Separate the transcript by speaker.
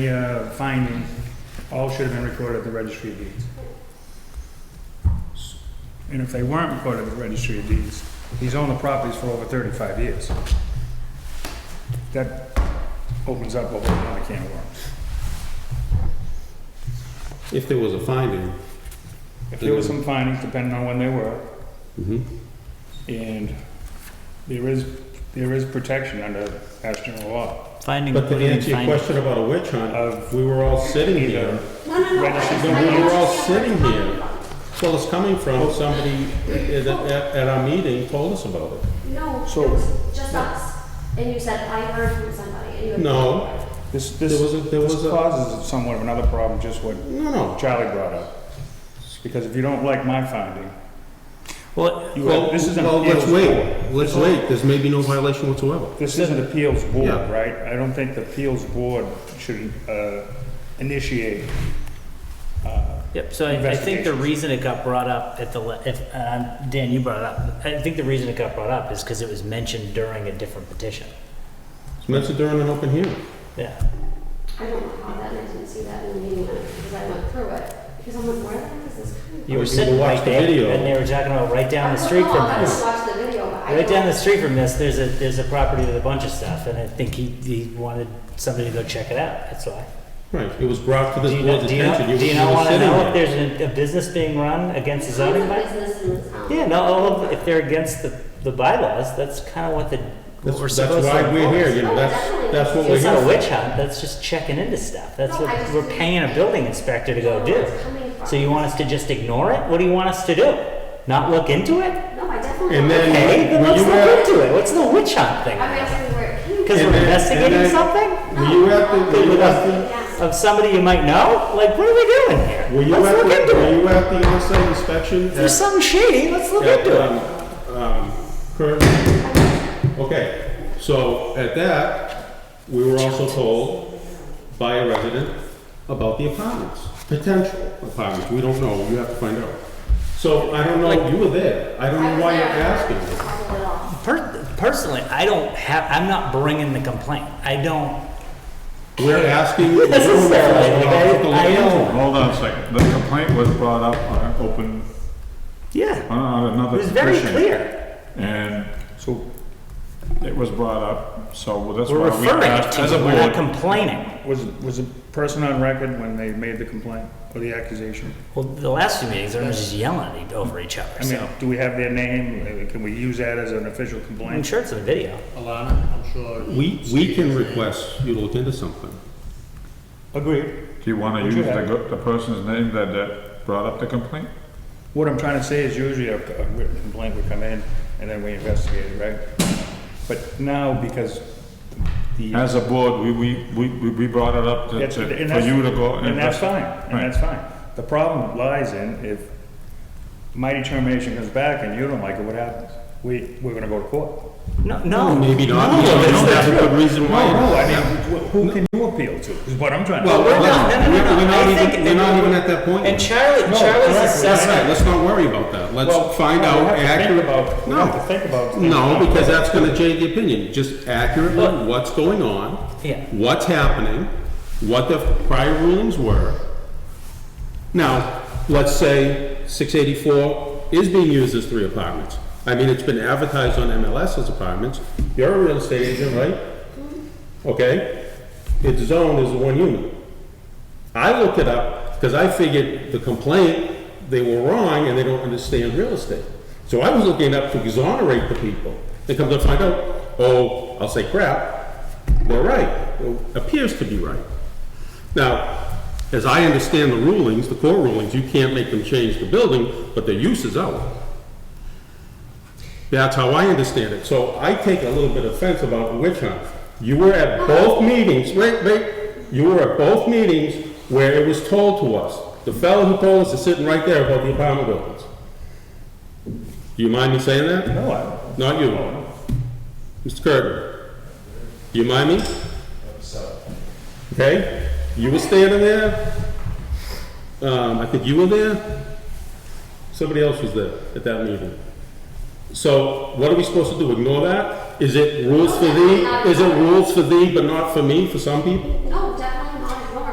Speaker 1: The uh, finding, all should have been recorded at the registry of deeds. And if they weren't recorded at the registry of deeds, he's owned the properties for over 35 years. That opens up a whole lot of can of worms.
Speaker 2: If there was a finding,
Speaker 1: If there were some findings, depending on when they were,
Speaker 2: Mm-hmm.
Speaker 1: and there is, there is protection under Mass General Law
Speaker 3: Finding,
Speaker 2: but to
Speaker 3: what do you mean
Speaker 2: answer your
Speaker 3: finding?
Speaker 2: question about a witch hunt, uh,
Speaker 1: Of
Speaker 2: we were all sitting
Speaker 1: either
Speaker 2: here.
Speaker 1: registry.
Speaker 2: No, we were all sitting here. Well, it's coming from somebody at, at- at our meeting told us about it.
Speaker 4: No, it
Speaker 1: So-
Speaker 4: was just us. And you said, I heard from somebody, and you.
Speaker 2: No,
Speaker 1: This,
Speaker 2: There was a-
Speaker 1: this,
Speaker 2: there
Speaker 1: this
Speaker 2: was a-
Speaker 1: causes somewhat of another problem, just what
Speaker 2: no, no.
Speaker 1: Charlie brought up. Because if you don't like my finding,
Speaker 3: Well,
Speaker 1: you,
Speaker 2: Well,
Speaker 1: this is an
Speaker 2: well, let's
Speaker 1: appeals board.
Speaker 2: wait, let's wait, there's maybe no violation whatsoever.
Speaker 1: This is an appeals board,
Speaker 2: Yeah.
Speaker 1: right? I don't think the appeals board should uh, initiate. uh,
Speaker 3: yep, so I, I think the
Speaker 1: Investigations.
Speaker 3: reason it got brought up at the, le- if, um, Dan, you brought it up. I think the reason it got brought up is because it was mentioned during a different petition.
Speaker 2: It's mentioned during an open hearing.
Speaker 3: Yeah.
Speaker 4: I don't know how that, and I didn't see that in the meeting minutes because I went through it. Because I'm like, where the heck is this coming from?
Speaker 3: You were
Speaker 2: you
Speaker 3: sitting
Speaker 2: watched
Speaker 3: right
Speaker 2: the
Speaker 3: there,
Speaker 2: video.
Speaker 3: and they were talking about right down the
Speaker 4: I
Speaker 3: street
Speaker 4: recall,
Speaker 3: from
Speaker 4: I just
Speaker 3: this.
Speaker 4: watched the video, but I.
Speaker 3: Right down
Speaker 4: don't-
Speaker 3: the street from this, there's a, there's a property with a bunch of stuff, and I think he, he wanted somebody to go check it out, that's why.
Speaker 2: Right, it was brought to
Speaker 3: Do
Speaker 2: this
Speaker 3: you
Speaker 2: board's
Speaker 3: not, do you not,
Speaker 2: attention. You
Speaker 3: do
Speaker 2: were-
Speaker 3: you not
Speaker 2: you were
Speaker 3: wanna
Speaker 2: sitting
Speaker 3: know
Speaker 2: there.
Speaker 3: if there's a, a business being run against the
Speaker 4: There's
Speaker 3: zoning
Speaker 4: no
Speaker 3: bylaw?
Speaker 4: Business in this town.
Speaker 3: Yeah, no, all of- if they're against the, the bylaws, that's kind of what the, what we're
Speaker 2: That's
Speaker 3: supposed
Speaker 2: that's
Speaker 3: to.
Speaker 2: why we're
Speaker 3: enforce.
Speaker 2: here, you know,
Speaker 4: Oh,
Speaker 2: that's,
Speaker 4: definitely.
Speaker 2: that's what we're
Speaker 3: It's
Speaker 2: here
Speaker 3: not a
Speaker 2: for.
Speaker 3: witch hunt, that's just checking into stuff, that's
Speaker 4: No, I
Speaker 3: what,
Speaker 4: just
Speaker 3: we're
Speaker 4: didn't-
Speaker 3: paying a building inspector to go
Speaker 4: I don't know
Speaker 3: do.
Speaker 4: where it's coming from.
Speaker 3: So you want us to just ignore it? What do you want us to do? Not look into it?
Speaker 4: No, I definitely.
Speaker 2: And then-
Speaker 3: Okay, then
Speaker 2: Were
Speaker 3: let's
Speaker 2: you
Speaker 3: look
Speaker 2: at-
Speaker 3: into it, what's the witch hunt thing?
Speaker 4: I'm asking where it came from.
Speaker 3: Because
Speaker 2: And
Speaker 3: we're
Speaker 2: then- and
Speaker 3: investigating
Speaker 2: then-
Speaker 3: something?
Speaker 2: Were you at the, were you at the?
Speaker 4: Yes.
Speaker 3: Of somebody you might know? Like, what are we doing here?
Speaker 2: Were you
Speaker 3: Let's
Speaker 2: at
Speaker 3: look
Speaker 2: the,
Speaker 3: into
Speaker 2: were
Speaker 3: it.
Speaker 2: you at the on-site inspection?
Speaker 3: If there's something shady, let's look
Speaker 2: at-
Speaker 3: into it.
Speaker 2: at, um, um, Kurt? Okay, so at that, we were also told by a resident about the apartments, potential apartments, we don't know, you have to find out. So I don't know, you were there, I don't
Speaker 4: I
Speaker 2: know
Speaker 4: was
Speaker 2: why you're
Speaker 4: there.
Speaker 2: asking.
Speaker 4: I just had a little-
Speaker 3: Per- personally, I don't have. I'm not bringing the complaint. I don't.
Speaker 2: We're asking. we're
Speaker 3: Necessarily,
Speaker 2: asking
Speaker 3: like,
Speaker 2: to
Speaker 3: I- I
Speaker 2: look
Speaker 3: don't-
Speaker 2: into it.
Speaker 5: Hold on a second, the complaint was brought up on an open,
Speaker 3: Yeah,
Speaker 5: on
Speaker 3: it
Speaker 5: another
Speaker 3: was very
Speaker 5: petition.
Speaker 3: clear.
Speaker 5: And so it was brought up, so that's
Speaker 3: We're
Speaker 5: why we
Speaker 3: referring it
Speaker 5: asked
Speaker 3: to
Speaker 5: as a
Speaker 3: you. We're not
Speaker 5: board.
Speaker 3: complaining.
Speaker 1: Was, was a person on record when they made the complaint or the accusation?
Speaker 3: Well, the last few meetings, everyone was just yelling at each- over each other.
Speaker 1: I mean,
Speaker 3: so
Speaker 1: do we have their name? Uh, Can we use that as an official
Speaker 3: I'm
Speaker 1: complaint?
Speaker 3: sure it's in the video.
Speaker 6: Alana, I'm sure.
Speaker 2: We, we can request you to look into something.
Speaker 1: Agreed.
Speaker 5: Do you wanna
Speaker 1: Would
Speaker 5: use
Speaker 1: you
Speaker 5: the,
Speaker 1: have-
Speaker 5: go- the person's name that, that brought up the complaint?
Speaker 1: What I'm trying to say is usually a a written complaint would come in and then we investigate it, right? But now because the.
Speaker 5: As a board, we, we, we, we- we brought it up to,
Speaker 1: That's-
Speaker 5: to-
Speaker 1: and
Speaker 5: for
Speaker 1: that's-
Speaker 5: you to go.
Speaker 1: And that's fine, and
Speaker 5: Right.
Speaker 1: that's fine. The problem lies in if my determination comes back and you don't like it, what happens? We, we're gonna go to court.
Speaker 3: No, no,
Speaker 2: Maybe not,
Speaker 3: No,
Speaker 2: you
Speaker 3: that's
Speaker 2: don't
Speaker 3: the
Speaker 2: have a
Speaker 3: truth.
Speaker 2: good reason why.
Speaker 1: No, no, I mean, wh- who can you appeal to, is what I'm trying to.
Speaker 2: Well,
Speaker 3: We're
Speaker 2: we're
Speaker 3: not-
Speaker 2: not,
Speaker 3: no, no, no,
Speaker 2: we're
Speaker 3: no.
Speaker 2: we're
Speaker 3: I
Speaker 2: not
Speaker 3: think
Speaker 2: even,
Speaker 3: that
Speaker 2: we're not
Speaker 3: we-
Speaker 2: even at that point. yet.
Speaker 3: And Charlie,
Speaker 1: No,
Speaker 3: Charlie's
Speaker 1: correct,
Speaker 2: That's
Speaker 3: assessment.
Speaker 2: right, let's not worry about that,
Speaker 1: Well,
Speaker 2: let's find
Speaker 1: we
Speaker 2: out
Speaker 1: have to think
Speaker 2: accurate.
Speaker 1: about- we
Speaker 2: No.
Speaker 1: have to think about-
Speaker 2: No, because that's gonna change the opinion, just accurately
Speaker 3: Look.
Speaker 2: what's going on.
Speaker 3: Yeah.
Speaker 2: What's happening, what the prior rulings were. Now, let's say six eighty-four is being used as three apartments. I mean, it's been advertised on MLS as apartments, you're a real estate agent, right? Okay, its zone is one unit. I looked it up because I figured the complaint, they were wrong and they don't understand real estate. So I was looking up to exonerate the people. They come to find out, oh, I'll say crap, they're right, or appears to be right. Now, as I understand the rulings, the court rulings, you can't make them change the building, but the use is out. That's how I understand it. So I take a little bit offense about witch hunt. You were at both meetings, wait, wait, you were at both meetings where it was told to us. The fellow who told us is sitting right there about the apartment buildings. Do you mind me saying that?
Speaker 1: No, I-
Speaker 2: Not you. Mr. Curtin, do you mind me? Okay, you were standing there. Um, I think you were there. Somebody else was there at that meeting. So what are we supposed to do? Ignore that? Is it rules for thee? Is it rules for thee but not for me, for some people?
Speaker 4: No,